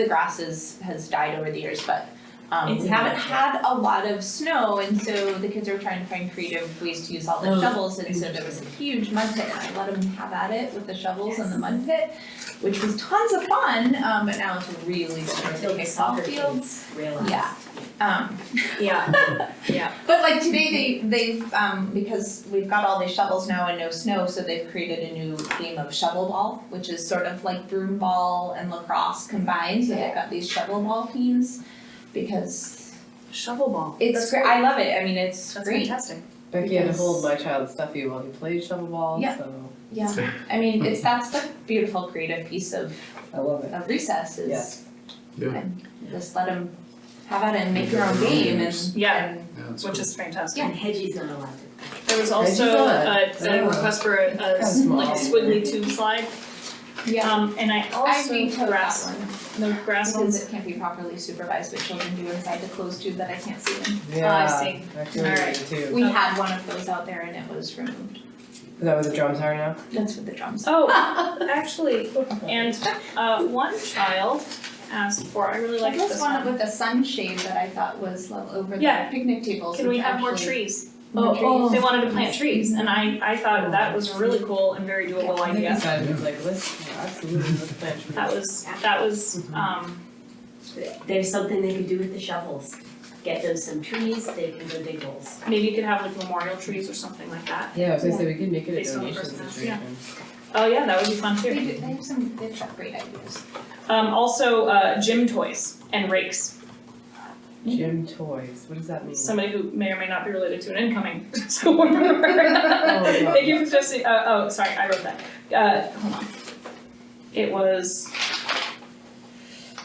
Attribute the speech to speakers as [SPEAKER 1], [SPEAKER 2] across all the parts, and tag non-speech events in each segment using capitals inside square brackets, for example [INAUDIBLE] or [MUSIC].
[SPEAKER 1] the grass is, has died over the years, but um
[SPEAKER 2] It's
[SPEAKER 1] we haven't had a lot of snow and so the kids are trying to find creative ways to use all the
[SPEAKER 2] Oh.
[SPEAKER 1] shovels and so there was a huge mud pit and I let them have at it with the shovels and the mud pit, which was tons of fun, um but now it's really difficult to
[SPEAKER 2] Until the
[SPEAKER 1] make ball
[SPEAKER 2] soccer
[SPEAKER 1] fields.
[SPEAKER 2] kids realize.
[SPEAKER 1] Yeah. Um
[SPEAKER 2] [LAUGHS] Yeah,
[SPEAKER 1] but like today they they've um because we've got all these shovels now and no snow, so they've created a new game of shovel ball, which is sort of like broom ball and lacrosse combined, so they've got these shovel ball teams because
[SPEAKER 3] Shovel ball.
[SPEAKER 1] it's great, I love it, I mean, it's
[SPEAKER 3] That's
[SPEAKER 1] great.
[SPEAKER 3] fantastic.
[SPEAKER 4] Becky had a
[SPEAKER 1] Because-
[SPEAKER 4] whole of my child Stuffy while he played shovel ball,
[SPEAKER 1] Yeah.
[SPEAKER 4] so
[SPEAKER 1] Yeah, I mean, it's that's the beautiful creative piece of
[SPEAKER 4] I love it.
[SPEAKER 1] of recess is
[SPEAKER 4] Yes.
[SPEAKER 5] Yeah.
[SPEAKER 1] and just let them have at it and make your own game and
[SPEAKER 3] Yeah.
[SPEAKER 1] and
[SPEAKER 5] Yeah, that's
[SPEAKER 3] Which
[SPEAKER 5] cool.
[SPEAKER 3] is fantastic.
[SPEAKER 2] and Hedgie's not allowed to.
[SPEAKER 3] There was
[SPEAKER 4] How'd you
[SPEAKER 3] also
[SPEAKER 4] do
[SPEAKER 3] a,
[SPEAKER 4] it?
[SPEAKER 5] Oh.
[SPEAKER 3] a request for a, a s-
[SPEAKER 4] Small.
[SPEAKER 3] like a squiggly tube slide.
[SPEAKER 1] yeah,
[SPEAKER 3] Um, and I
[SPEAKER 1] I
[SPEAKER 3] also
[SPEAKER 1] vetoed that
[SPEAKER 3] grass,
[SPEAKER 1] one.
[SPEAKER 3] the grass
[SPEAKER 1] Because
[SPEAKER 3] ones.
[SPEAKER 1] it can't be properly supervised, what children do inside the closed tube that I can't see them.
[SPEAKER 4] Yeah,
[SPEAKER 3] Oh, see.
[SPEAKER 4] I feel you
[SPEAKER 3] Alright.
[SPEAKER 4] too.
[SPEAKER 1] We had one of those out there and it was removed.
[SPEAKER 4] Is that where the drums are now?
[SPEAKER 1] That's what the drums.
[SPEAKER 3] [LAUGHS] Oh, actually, and, uh, one child asked for, I really like
[SPEAKER 1] Like
[SPEAKER 3] this
[SPEAKER 1] this one
[SPEAKER 3] one.
[SPEAKER 1] with a sunshade that I thought was level over the
[SPEAKER 3] Yeah.
[SPEAKER 1] picnic tables,
[SPEAKER 3] Can we
[SPEAKER 1] which
[SPEAKER 3] have more
[SPEAKER 1] actually-
[SPEAKER 3] trees? Oh,
[SPEAKER 1] More trees.
[SPEAKER 3] They wanted to plant trees and I, I thought that was a really cool and very doable
[SPEAKER 4] Oh, I think
[SPEAKER 3] idea.
[SPEAKER 4] I decided, like, let's, yeah, absolutely, let's plant trees.
[SPEAKER 3] That was, that was, um,
[SPEAKER 2] There's something they could do with the shovels. Get them some trees, they can go dig holes.
[SPEAKER 3] maybe you could have like memorial trees or something like that.
[SPEAKER 4] Yeah, I was gonna say, we could make it a
[SPEAKER 3] Based on the
[SPEAKER 4] donation
[SPEAKER 3] personality,
[SPEAKER 4] situation.
[SPEAKER 3] Oh, yeah, that would be fun
[SPEAKER 1] They
[SPEAKER 3] too.
[SPEAKER 1] do, they have some, they've got great ideas.
[SPEAKER 3] Um, also, uh, gym toys and rakes.
[SPEAKER 4] Gym toys, what does that mean?
[SPEAKER 3] somebody who may or may not be related to an incoming [LAUGHS] school member.
[SPEAKER 4] Oh, God.
[SPEAKER 3] [LAUGHS] Thank you for suggesting, uh, oh, sorry, I wrote that. Uh, hold on. It was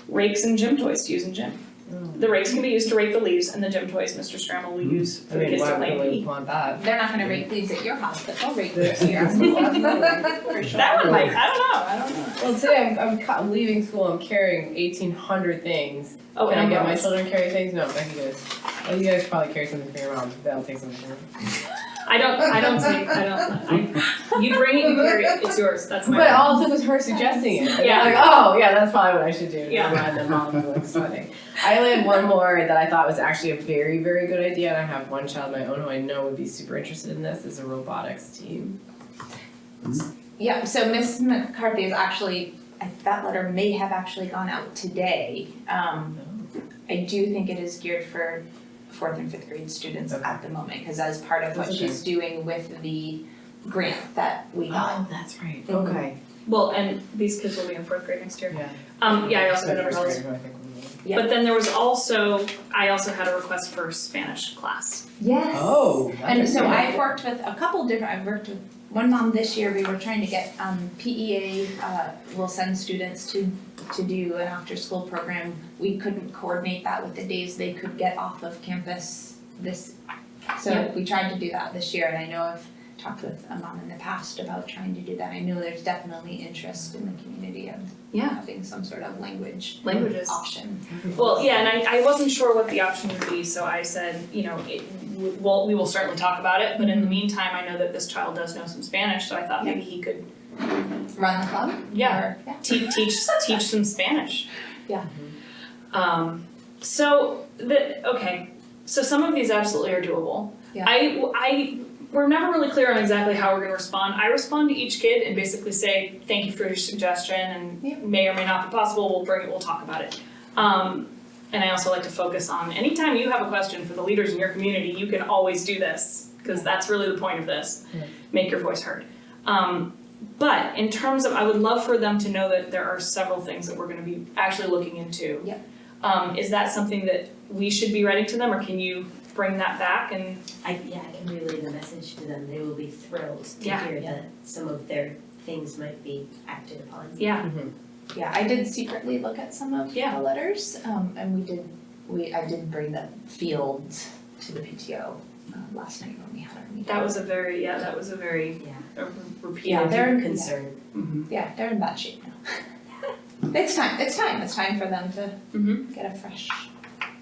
[SPEAKER 3] rakes and gym toys to use in gym.
[SPEAKER 4] Oh.
[SPEAKER 3] The rakes can be used to rake the leaves and the gym toys Mr. Scramble will use
[SPEAKER 4] Hmm. I
[SPEAKER 3] for the
[SPEAKER 4] mean,
[SPEAKER 3] kids to
[SPEAKER 4] why
[SPEAKER 3] play.
[SPEAKER 4] would we want that?
[SPEAKER 1] They're not gonna rake leaves at your house, but they'll rake
[SPEAKER 4] Yeah.
[SPEAKER 1] leaves
[SPEAKER 3] [LAUGHS]
[SPEAKER 1] here. For sure.
[SPEAKER 3] That one might, I don't know, I don't know.
[SPEAKER 4] Well, today I'm, I'm ca- leaving school, I'm carrying eighteen hundred things.
[SPEAKER 3] Oh,
[SPEAKER 4] Can I
[SPEAKER 3] and
[SPEAKER 4] get my
[SPEAKER 3] umbrellas.
[SPEAKER 4] children to carry things? No, Becky goes, oh, you guys probably carry something for your mom, that'll take something from her.
[SPEAKER 3] I don't, I don't take, I don't,
[SPEAKER 4] [LAUGHS]
[SPEAKER 3] I, you bring it, you carry it, it's yours, that's my.
[SPEAKER 4] But all it took was her
[SPEAKER 3] [LAUGHS]
[SPEAKER 4] suggesting it. And
[SPEAKER 3] Yeah.
[SPEAKER 4] I'm like, oh, yeah, that's probably what I should do.
[SPEAKER 3] Yeah.
[SPEAKER 4] And then mom was sweating. I only had one more that I thought was actually a very, very good idea, and I have one child of my own who I know would be super interested in this. Is a robotics team.
[SPEAKER 1] Yeah, so Miss McCarthy is actually, I- that letter may have actually gone out today. Um, I do think it is geared for fourth and fifth grade students
[SPEAKER 4] Okay.
[SPEAKER 1] at the moment, cause as part of what
[SPEAKER 4] That's
[SPEAKER 1] she's doing with the grant that we got.
[SPEAKER 4] Oh, that's right.
[SPEAKER 1] Mhm.
[SPEAKER 4] Okay.
[SPEAKER 3] Well, and these kids will be in fourth grade next year.
[SPEAKER 4] Yeah.
[SPEAKER 3] Um, yeah, I also had
[SPEAKER 4] So first
[SPEAKER 3] umbrellas.
[SPEAKER 4] grade, who I think we need.
[SPEAKER 1] Yeah.
[SPEAKER 3] But then there was also, I also had a request for Spanish class.
[SPEAKER 1] Yes.
[SPEAKER 4] Oh. that's
[SPEAKER 1] And so
[SPEAKER 4] great.
[SPEAKER 1] I've worked with a couple different, I've worked with one mom this year, we were trying to get, um, PEA, uh, will send students to, to do an after-school program. We couldn't coordinate that with the days they could get off of campus this, so
[SPEAKER 3] Yeah.
[SPEAKER 1] we tried to do that this year, and I know I've talked with a mom in the past about trying to do that. I know there's definitely interest in the community of
[SPEAKER 3] Yeah.
[SPEAKER 1] having some sort of language
[SPEAKER 3] Languages.
[SPEAKER 1] option.
[SPEAKER 3] Well, yeah, and I, I wasn't sure what the option would be, so I said, you know, it, well, we will certainly talk about it, but in the meantime, I know that this child does know some Spanish, so I thought maybe he could,
[SPEAKER 1] Run the club?
[SPEAKER 3] yeah,
[SPEAKER 1] or- Yeah.
[SPEAKER 3] te- teach, teach some Spanish.
[SPEAKER 1] Yeah.
[SPEAKER 3] Um, so, the, okay, so some of these absolutely are doable.
[SPEAKER 1] Yeah.
[SPEAKER 3] I, I, we're never really clear on exactly how we're gonna respond. I respond to each kid and basically say, thank you for your suggestion and
[SPEAKER 1] Yeah.
[SPEAKER 3] may or may not be possible, we'll bring it, we'll talk about it. Um, and I also like to focus on, anytime you have a question for the leaders in your community, you can always do this, because that's really the point of this.
[SPEAKER 4] Yeah.
[SPEAKER 3] Make your voice heard. Um, but in terms of, I would love for them to know that there are several things that we're gonna be actually looking into.
[SPEAKER 1] Yeah.
[SPEAKER 3] Um, is that something that we should be writing to them, or can you bring that back and
[SPEAKER 2] I, yeah, I can relay the message to them, they will be thrilled to
[SPEAKER 3] Yeah.
[SPEAKER 2] hear that some of their things might be acted upon.
[SPEAKER 3] Yeah.
[SPEAKER 4] Mhm.
[SPEAKER 1] Yeah, I did secretly look at some of
[SPEAKER 3] Yeah.
[SPEAKER 1] the letters, um, and we did, we, I did bring the field to the PTO, uh, last night when we had our meeting.
[SPEAKER 3] That was a very yeah. That was a very
[SPEAKER 2] Yeah.
[SPEAKER 3] uh, repeated.
[SPEAKER 1] Yeah, they're-
[SPEAKER 2] They're concerned.
[SPEAKER 1] Yeah, they're in bad shape now. [LAUGHS] It's time, it's time, it's time for them to
[SPEAKER 3] Mhm.
[SPEAKER 1] get a fresh.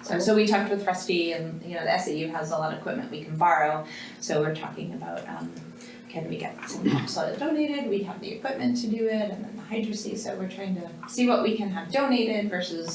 [SPEAKER 1] So, so we talked with Rusty and, you know, the SAU has a lot of equipment we can borrow, so we're talking about, um, can we get some soil donated, we have the equipment to do it, and then the hydro seed, so we're trying to see what we can have donated versus